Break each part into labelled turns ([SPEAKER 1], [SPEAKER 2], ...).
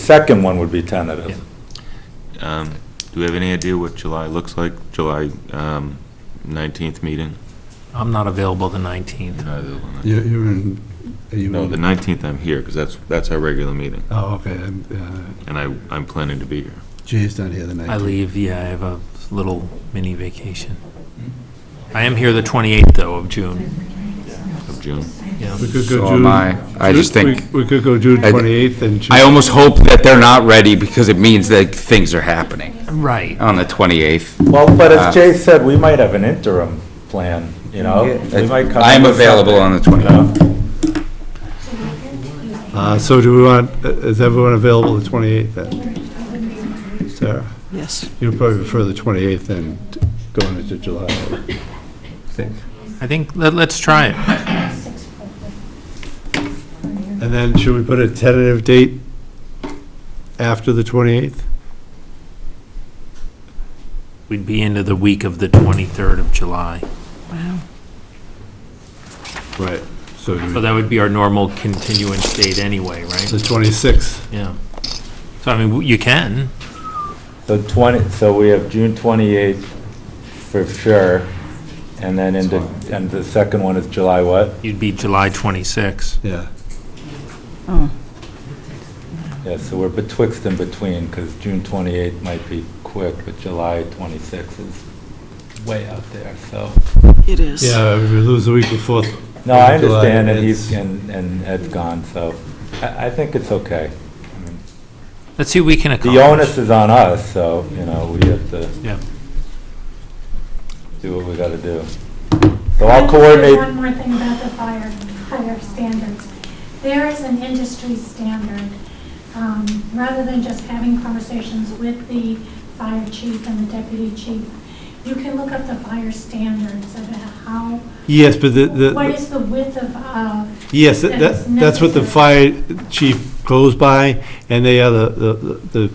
[SPEAKER 1] second one would be tentative.
[SPEAKER 2] Um, Do we have any idea what July looks like, July um, 19th meeting?
[SPEAKER 3] I'm not available the 19th.
[SPEAKER 2] Neither will I.
[SPEAKER 4] You're you're in, are you in?
[SPEAKER 2] No, the 19th I'm here, because that's, that's our regular meeting,
[SPEAKER 4] Oh, okay, I'm, uh,
[SPEAKER 2] and I, I'm planning to be here.
[SPEAKER 4] Jay's not here the night.
[SPEAKER 3] I leave, yeah, I have a little mini vacation. I am here the 28th, though, of June.
[SPEAKER 2] Of June.
[SPEAKER 3] Yeah.
[SPEAKER 4] We could
[SPEAKER 5] So
[SPEAKER 4] go
[SPEAKER 5] am
[SPEAKER 4] June.
[SPEAKER 5] I. I just
[SPEAKER 4] we-
[SPEAKER 5] think-
[SPEAKER 4] We could go June
[SPEAKER 5] I-
[SPEAKER 4] 28th and June.
[SPEAKER 5] I almost hope that they're not ready because it means that things are happening
[SPEAKER 3] Right.
[SPEAKER 5] on the 28th.
[SPEAKER 1] Well, but
[SPEAKER 5] Uh,
[SPEAKER 1] as Jay said, we might have an interim plan, you know? We might come
[SPEAKER 5] I'm
[SPEAKER 1] up with
[SPEAKER 5] available on the
[SPEAKER 1] something, you
[SPEAKER 5] 28th.
[SPEAKER 1] know?
[SPEAKER 4] Uh, So do we want, uh, is everyone available the 28th then? Sarah,
[SPEAKER 6] Yes.
[SPEAKER 4] you'd probably prefer the 28th than going into July. I think.
[SPEAKER 3] I think, let- let's try it.
[SPEAKER 4] And then should we put a tentative date after the 28th?
[SPEAKER 3] We'd be into the week of the 23rd of July.
[SPEAKER 6] Wow.
[SPEAKER 4] Right. So do
[SPEAKER 3] So
[SPEAKER 4] we-
[SPEAKER 3] that would be our normal continuance date anyway, right?
[SPEAKER 4] the 26th,
[SPEAKER 3] Yeah. So I mean, w- you can.
[SPEAKER 1] So 20, so we have June 28th for sure, and then into, and the second one is July what?
[SPEAKER 3] You'd be July 26th.
[SPEAKER 4] yeah.
[SPEAKER 1] Yeah, so we're betwixt and between, because June 28th might be quick, but July 26th is way out there, so.
[SPEAKER 6] It is.
[SPEAKER 4] Yeah, we lose the week before.
[SPEAKER 1] No, I
[SPEAKER 4] July,
[SPEAKER 1] understand, and he's,
[SPEAKER 4] it's-
[SPEAKER 1] and and Ed's gone, so I I think it's okay. I mean,
[SPEAKER 3] Let's see what we can accomplish.
[SPEAKER 1] The onus is on us, so, you know, we have to
[SPEAKER 3] Yeah.
[SPEAKER 1] do what we gotta do. So I'll coordinate,
[SPEAKER 7] One more thing about the fire, fire standards. There is an industry standard, um, rather than just having conversations with the fire chief and the deputy chief, you can look up the fire standards about how,
[SPEAKER 4] Yes, but the, the.
[SPEAKER 7] what is the width of, uh,
[SPEAKER 4] Yes, that-
[SPEAKER 7] That's
[SPEAKER 4] that, that's what the fire chief goes by, and they are the- the, the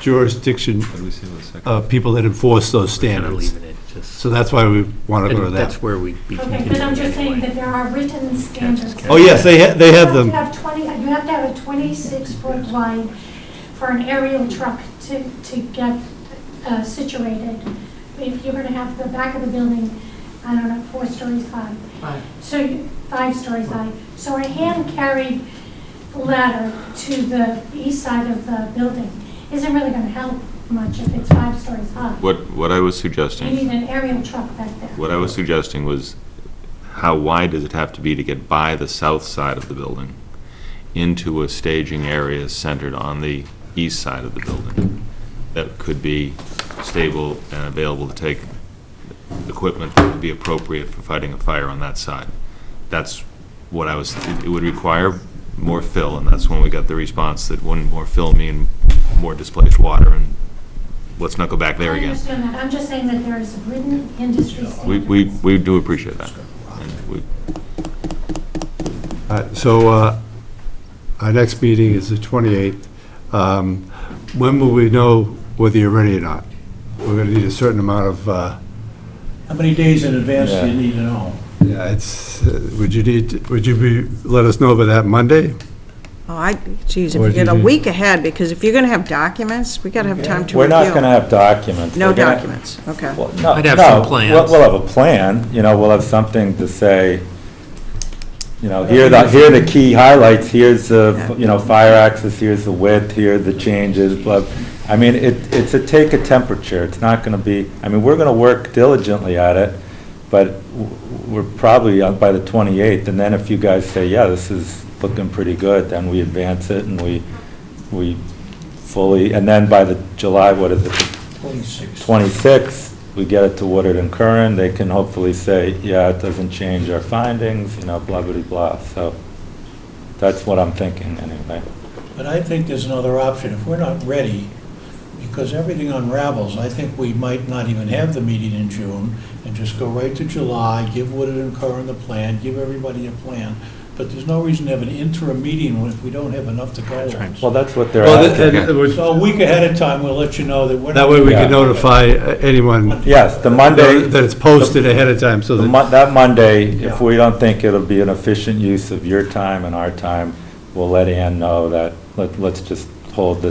[SPEAKER 4] jurisdiction
[SPEAKER 2] What do we say with the second?
[SPEAKER 4] of people that enforce those
[SPEAKER 3] We're gonna
[SPEAKER 4] standards.
[SPEAKER 3] leave it at just-
[SPEAKER 4] So that's why we want to go to
[SPEAKER 3] And That's
[SPEAKER 4] that.
[SPEAKER 3] where we'd be
[SPEAKER 7] okay, but I'm
[SPEAKER 3] continuing
[SPEAKER 7] just saying
[SPEAKER 3] anyway.
[SPEAKER 7] that there are written standards.
[SPEAKER 3] okay.
[SPEAKER 4] Oh, yes, they, ha- they have
[SPEAKER 7] You
[SPEAKER 4] them.
[SPEAKER 7] have to have 20, you have to have a 26-foot wide for an aerial truck to, to get uh, situated. If you're going to have the back of the building, I don't know, four stories high. So, you- five stories high. So a hand-carried ladder to the east side of the building isn't really going to help much if it's five stories high.
[SPEAKER 2] What, what I was
[SPEAKER 7] You need
[SPEAKER 2] suggesting,
[SPEAKER 7] an aerial truck back there.
[SPEAKER 2] what I was suggesting was, how wide does it have to be to get by the south side of the building into a staging area centered on the east side of the building? That could be stable and available to take equipment that would be appropriate for fighting a fire on that side. That's what I was, it would require more fill, and that's when we got the response that wouldn't more fill mean more displaced water, and let's not go back there
[SPEAKER 7] I
[SPEAKER 2] again.
[SPEAKER 7] understand that. I'm just saying that there is written industry standards.
[SPEAKER 2] We, we, we do appreciate that. And we-
[SPEAKER 4] All right, So uh, our next meeting is the 28th. Um, When will we know whether you're ready or not? We're going to need a certain amount of, uh,
[SPEAKER 8] How many days in advance do
[SPEAKER 1] Yeah.
[SPEAKER 8] you need to know?
[SPEAKER 4] yeah, it's, uh, would you need, would you be, let us know by that Monday?
[SPEAKER 6] Oh, I, geez, if
[SPEAKER 4] Or
[SPEAKER 6] you
[SPEAKER 4] do
[SPEAKER 6] get a
[SPEAKER 4] you-
[SPEAKER 6] week ahead, because if you're gonna have documents, we gotta have time to review.
[SPEAKER 1] we're not gonna have documents.
[SPEAKER 6] No
[SPEAKER 1] We're gonna-
[SPEAKER 6] documents, okay.
[SPEAKER 1] Well, no,
[SPEAKER 3] I'd have some
[SPEAKER 1] no, we'll-
[SPEAKER 3] plans.
[SPEAKER 1] We'll have a plan, you know, we'll have something to say, you know, here are the, here are the key highlights, here's the,
[SPEAKER 6] Yeah.
[SPEAKER 1] you know, fire access, here's the width, here are the changes, blah. I mean, it, it's a take a temperature, it's not gonna be, I mean, we're gonna work diligently at it, but w- we're probably out by the 28th, and then if you guys say, yeah, this is looking pretty good, then we advance it and we, we fully, and then by the July, what is it,
[SPEAKER 8] Twenty-six.
[SPEAKER 1] 26, we get it to Woodard and Curran, they can hopefully say, yeah, it doesn't change our findings, you know, blah, blah, blah. So that's what I'm thinking, anyway.
[SPEAKER 8] But I think there's another option. If we're not ready, because everything unravels, I think we might not even have the meeting in June and just go right to July, give Woodard and Curran the plan, give everybody a plan. But there's no reason to have an interim meeting if we don't have enough to go
[SPEAKER 3] That's right.
[SPEAKER 8] on.
[SPEAKER 1] Well, that's what they're
[SPEAKER 4] Well,
[SPEAKER 1] asking.
[SPEAKER 4] th- and- and we're-
[SPEAKER 8] So a week ahead of time, we'll let you know that we're.
[SPEAKER 4] That way we
[SPEAKER 1] Yeah.
[SPEAKER 4] can notify uh, anyone
[SPEAKER 1] Yes, the Monday,
[SPEAKER 4] that it's posted ahead of time, so
[SPEAKER 1] the
[SPEAKER 4] that,
[SPEAKER 1] Mon- that Monday, if
[SPEAKER 8] Yeah.
[SPEAKER 1] we don't think it'll be an efficient use of your time and our time, we'll let Ann know that, let- let's just hold the